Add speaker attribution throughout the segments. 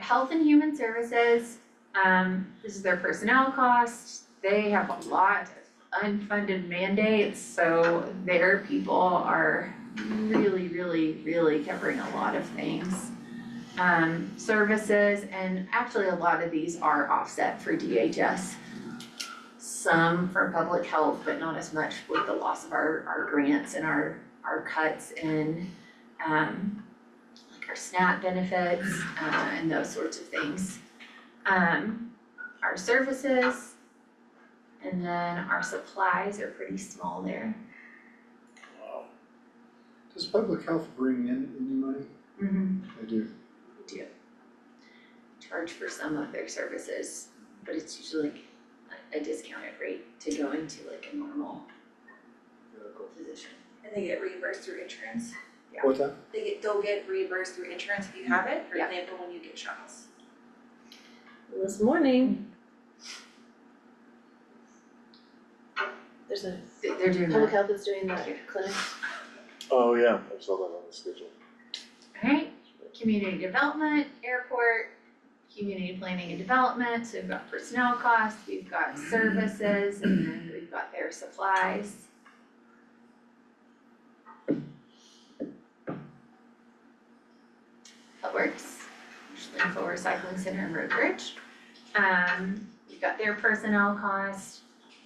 Speaker 1: Health and Human Services, um, this is their personnel cost. They have a lot of unfunded mandates, so their people are really, really, really covering a lot of things. Um, services, and actually a lot of these are offset for DHS. Some from public health, but not as much with the loss of our, our grants and our, our cuts in, um, like our SNAP benefits, uh, and those sorts of things. Um, our services, and then our supplies are pretty small there.
Speaker 2: Um,
Speaker 3: Wow. Does public health bring in any money? They do.
Speaker 1: We do charge for some of their services, but it's usually like a a discounted rate to go into like a normal physician.
Speaker 4: And they get reimbursed through insurance.
Speaker 1: Yeah.
Speaker 3: What's that?
Speaker 4: They get, they'll get reimbursed through insurance if you have it, for
Speaker 1: Yeah.
Speaker 4: example, when you get shots.
Speaker 5: This morning. There's a,
Speaker 1: They- They're doing
Speaker 5: public
Speaker 1: that.
Speaker 5: health is doing the clinic.
Speaker 2: Oh, yeah, I saw that on the schedule.
Speaker 1: Alright, community development, airport, community planning and development, so we've got personnel costs, we've got services, and then we've got their supplies. That works, usually for recycling center and road bridge. Um, you've got their personnel costs,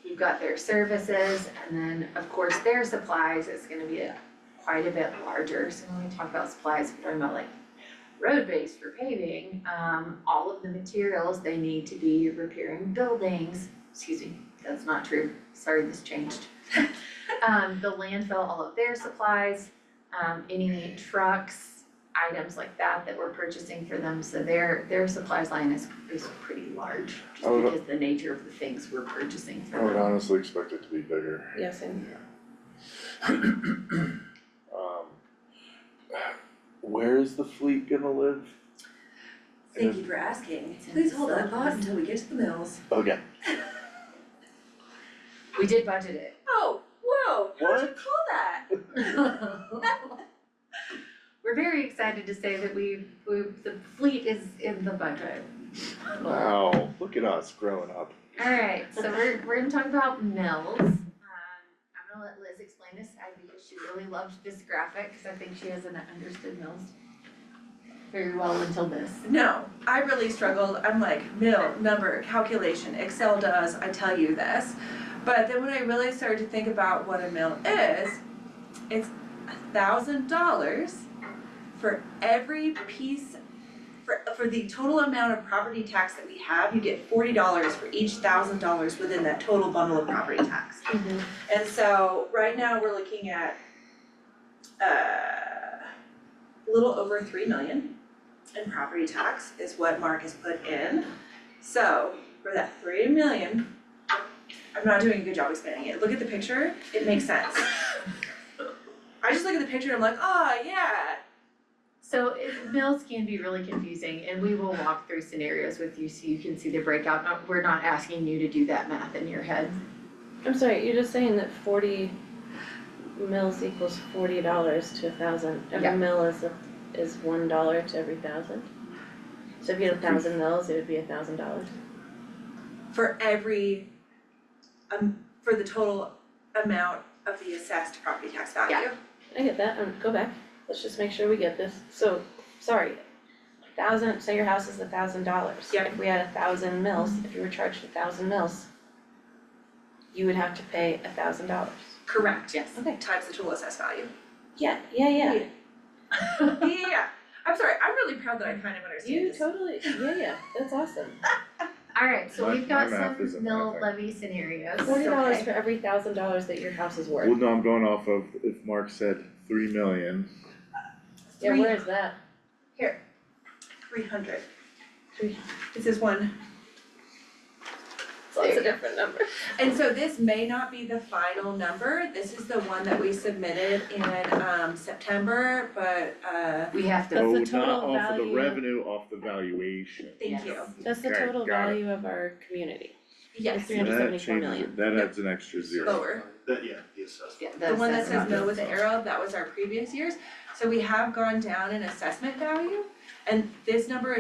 Speaker 1: you've got their services, and then of course their supplies is gonna be a quite a bit larger, so when we talk about supplies, we're talking about like road base for paving, um, all of the materials they need to be repairing buildings, excuse me, that's not true, sorry, this changed. Um, the landfill, all of their supplies, um, any trucks, items like that that we're purchasing for them, so their, their supplies line is, is pretty large,
Speaker 2: I
Speaker 1: just
Speaker 2: would-
Speaker 1: because the nature of the things we're purchasing for
Speaker 2: I would
Speaker 1: them.
Speaker 2: honestly expect it to be bigger.
Speaker 5: Yeah, same.
Speaker 2: Um, where is the fleet gonna live?
Speaker 4: Thank you for asking. Please hold that thought until we get to the mills.
Speaker 2: Okay.
Speaker 1: We did budget it,
Speaker 4: Oh, whoa, how'd you
Speaker 2: What?
Speaker 4: call that?
Speaker 1: We're very excited to say that we, we, the fleet is in the budget.
Speaker 2: Wow, look at us growing up.
Speaker 1: Alright, so we're, we're gonna talk about mills. Um, I'm gonna let Liz explain this, I because she really loved this graphic, cause I think she hasn't understood mills very well until this.
Speaker 4: No, I really struggled. I'm like, mill, number, calculation, Excel does, I tell you this. But then when I really started to think about what a mill is, it's a thousand dollars for every piece, for, for the total amount of property tax that we have, you get forty dollars for each thousand dollars within that total bundle of property tax. And so right now, we're looking at uh, a little over three million and property tax is what Mark has put in. So for that three million, I'm not doing a good job explaining it. Look at the picture, it makes sense. I just look at the picture and I'm like, oh yeah.
Speaker 1: So it, mills can be really confusing and we will walk through scenarios with you so you can see the breakout, Not- we're not asking you to do that math in your head.
Speaker 5: I'm sorry, you're just saying that forty mils equals forty dollars to a thousand.
Speaker 1: Yeah.
Speaker 5: Every mil is a, is one dollar to every thousand. So if you had a thousand mils, it would be a thousand dollars.
Speaker 4: For every, um, for the total amount of the assessed property tax value.
Speaker 1: Yeah.
Speaker 5: I get that, um, go back, let's just make sure we get this, so, sorry. Thousand, say your house is a thousand dollars.
Speaker 4: Yep.
Speaker 5: If we had a thousand mils, if you were charged a thousand mils, you would have to pay a thousand dollars.
Speaker 4: Correct.
Speaker 1: Yes.
Speaker 5: Okay.
Speaker 4: Times the total assessed value.
Speaker 5: Yeah, yeah, yeah,
Speaker 4: Yeah, I'm sorry, I'm really proud that I kind of understand
Speaker 5: you
Speaker 4: this.
Speaker 5: totally, yeah, yeah, that's awesome.
Speaker 1: Alright, so
Speaker 2: My-
Speaker 1: we've got
Speaker 2: my math
Speaker 1: some
Speaker 2: isn't
Speaker 1: mill
Speaker 2: mathing.
Speaker 1: levy scenarios,
Speaker 5: Forty dollars
Speaker 1: Okay.
Speaker 5: for every thousand dollars that your house is
Speaker 2: Well,
Speaker 5: worth.
Speaker 2: no, I'm going off of if Mark said three million.
Speaker 5: Yeah,
Speaker 4: Three-
Speaker 5: where is that?
Speaker 4: Three hundred.
Speaker 5: Three-
Speaker 4: This is one
Speaker 5: It's a different number.
Speaker 4: And so this may not be the final number, this is the one that we submitted in um September, but uh
Speaker 1: We have to,
Speaker 5: That's the
Speaker 2: Oh, not
Speaker 5: total
Speaker 2: off of the
Speaker 5: value.
Speaker 2: revenue, off the valuation.
Speaker 4: thank you.
Speaker 1: Yes.
Speaker 5: That's the
Speaker 2: Okay,
Speaker 5: total
Speaker 2: got it.
Speaker 5: value of our community.
Speaker 4: Yes,
Speaker 5: Three hundred
Speaker 2: That
Speaker 5: seventy-four
Speaker 2: changes
Speaker 5: million.
Speaker 2: it. That adds an extra zero.
Speaker 4: lower.
Speaker 3: That, yeah, the assessment.
Speaker 1: yeah,
Speaker 4: The one that
Speaker 1: assessment.
Speaker 4: says no with the arrow, that was our previous years, so we have gone down in assessment value. And this number